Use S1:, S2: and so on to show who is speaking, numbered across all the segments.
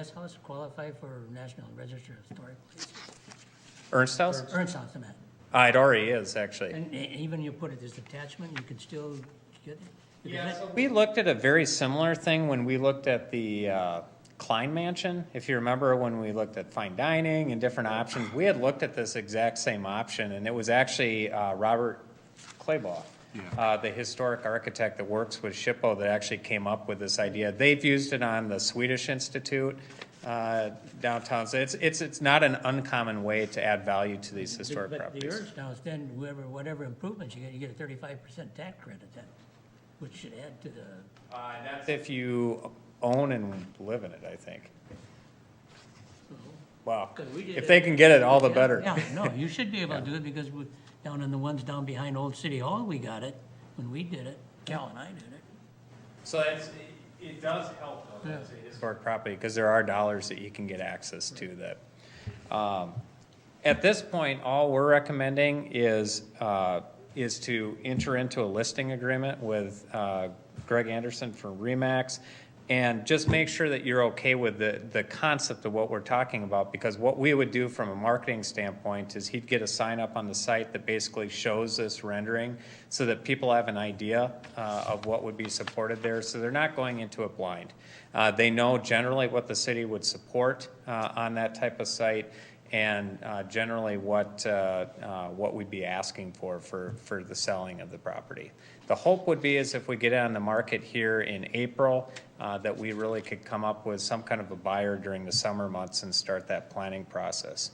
S1: Does house qualify for National Register of Historic Places?
S2: Ernst House?
S1: Ernst House, I meant.
S2: Uh, it already is, actually.
S1: And e- even you put it as attachment, you can still get it? You can
S3: Yeah,
S1: let-
S3: so
S2: We looked at a very similar thing when we looked at the uh, Klein Mansion. If you remember when we looked at fine dining and different options, we had looked at this exact same option, and it was actually uh, Robert Claybaugh, uh, the historic architect that works with Shippo, that actually came up with this idea. They've used it on the Swedish Institute uh, downtown. So it's, it's, it's not an uncommon way to add value to these historic
S1: But the
S2: properties.
S1: Ernst House, then whoever, whatever improvements you get, you get a thirty-five percent tax credit then, which should add to the,
S2: Uh, that's if you own and live in it, I think. Wow.
S1: 'Cause we did
S2: If
S1: it-
S2: they can get it, all the
S1: Yeah,
S2: better.
S1: Yeah, no, you should be able to do it because we- down in the ones down behind Old City Hall, we got it when we did it. Cal and I did it.
S2: So that's, it does help though,
S1: that's a
S2: Historic property, because there are dollars that you can get access to that. um, At this point, all we're recommending is, uh, is to enter into a listing agreement with, uh, Greg Anderson from Remax. And just make sure that you're okay with the, the concept of what we're talking about, because what we would do from a marketing standpoint is he'd get a sign up on the site that basically shows this rendering so that people have an idea uh, of what would be supported there, so they're not going into it blind. Uh, They know generally what the city would support uh, on that type of site and uh, generally what, uh, uh, what we'd be asking for, for, for the selling of the property. The hope would be is if we get it on the market here in April, uh, that we really could come up with some kind of a buyer during the summer months and start that planning process.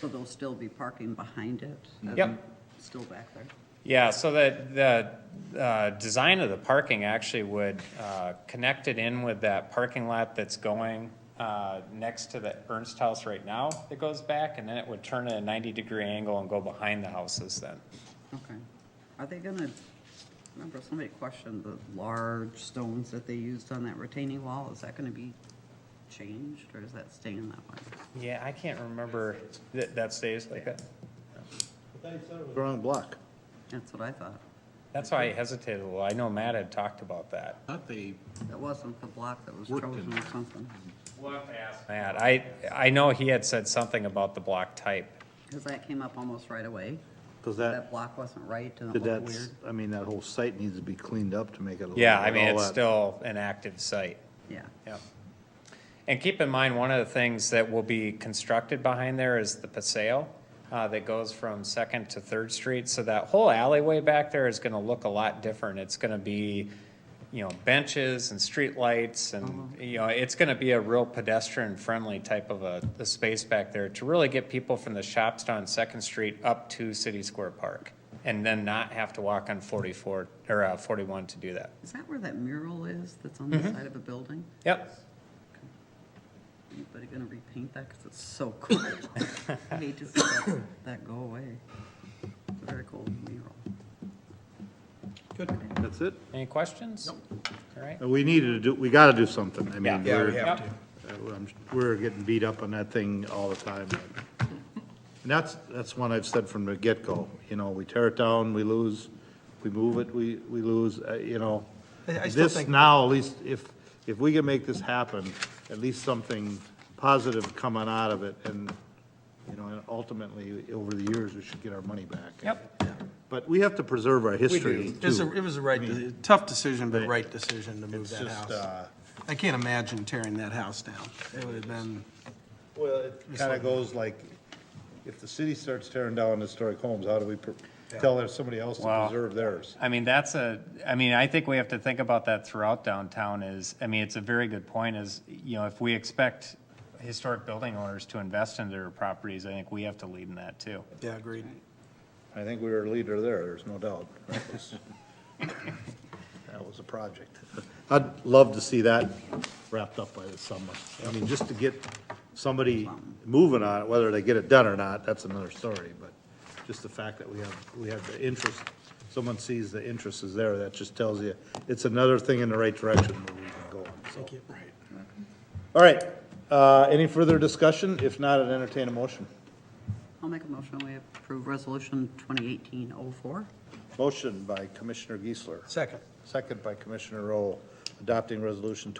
S4: So there'll still be parking behind it?
S2: Yep.
S4: Still back there?
S2: Yeah, so that, the, uh, design of the parking actually would, uh, connect it in with that parking lot that's going, uh, next to the Ernst House right now that goes back, and then it would turn at a ninety-degree angle and go behind the houses then.
S4: Okay. Are they gonna, remember somebody questioned the large stones that they used on that retaining wall? Is that gonna be changed or is that staying that way?
S2: Yeah, I can't remember that, that stays like that.
S5: Wrong block.
S4: That's what I thought.
S2: That's why I hesitated a little. I know Matt had talked about that.
S5: Thought they,
S4: That wasn't the block that was
S5: Worked in
S4: chosen or something.
S2: Matt, I, I know he had said something about the block type.
S4: Cause that came up almost right away.
S5: because
S4: That
S5: that,
S4: block wasn't right and it looked
S5: that's,
S4: weird.
S5: I mean, that whole site needs to be cleaned up to make it.
S2: Yeah, I mean,
S5: all
S2: it's
S5: that-
S2: still an active site.
S4: Yeah.
S2: Yep. And keep in mind, one of the things that will be constructed behind there is the paseo uh, that goes from Second to Third Street. So that whole alleyway back there is going to look a lot different. It's going to be, you know, benches and streetlights and, you know, it's going to be a real pedestrian-friendly type of a, a space back there to really get people from the shops down Second Street up to City Square Park and then not have to walk on 44, or uh, 41 to do that.
S4: Is that where that mural is that's on the side of a building?
S2: Yep.
S4: Anybody gonna repaint that? Cause it's so cool. I hate to see that, that go away. It's a very cool mural.
S5: That's it?
S2: Any questions? Nope. All right.
S5: We needed to do, we gotta do something. I
S2: Yeah.
S5: mean,
S2: Yeah,
S5: we're,
S2: we have to.
S5: uh, I'm- we're getting beat up on that thing all the time. And that's, that's one I've said from the get-go, you know, we tear it down, we lose, we move it, we, we lose, uh, you know.
S6: I- I still
S5: This
S6: think-
S5: now, at least, if, if we can make this happen, at least something positive coming out of it, and, you know, and ultimately, over the years, we should get our money back.
S2: Yep.
S5: But we have to preserve our history,
S6: It was a,
S5: too.
S6: it was a right, de- tough decision, but
S5: Right.
S6: right decision to move
S5: It's
S6: that
S5: just,
S6: house.
S5: uh,
S6: I can't imagine tearing that house down. It would have been,
S5: Well, it kind of goes like, if the city starts tearing down historic homes, how do we pr- tell there's somebody else to
S2: Wow.
S5: preserve theirs?
S2: I mean, that's a, I mean, I think we have to think about that throughout downtown is, I mean, it's a very good point is, you know, if we expect historic building owners to invest in their properties, I think we have to lead in that too.
S6: yeah, agreed.
S5: I think we were a leader there, there's no doubt. That was- that was a project. I'd love to see that wrapped up by the summer. I mean, just to get somebody moving on it, whether they get it done or not, that's another story, but just the fact that we have, we have the interest, someone sees the interest is there, that just tells you, it's another thing in the right direction where we can go, so.
S6: Thank you. Right.
S5: All right, uh, any further discussion? If not, I'd entertain a motion.
S4: I'll make a motion, we approve resolution 2018-04.
S5: Motion by Commissioner Geisler,
S6: Second.
S5: second by Commissioner Roll, adopting resolution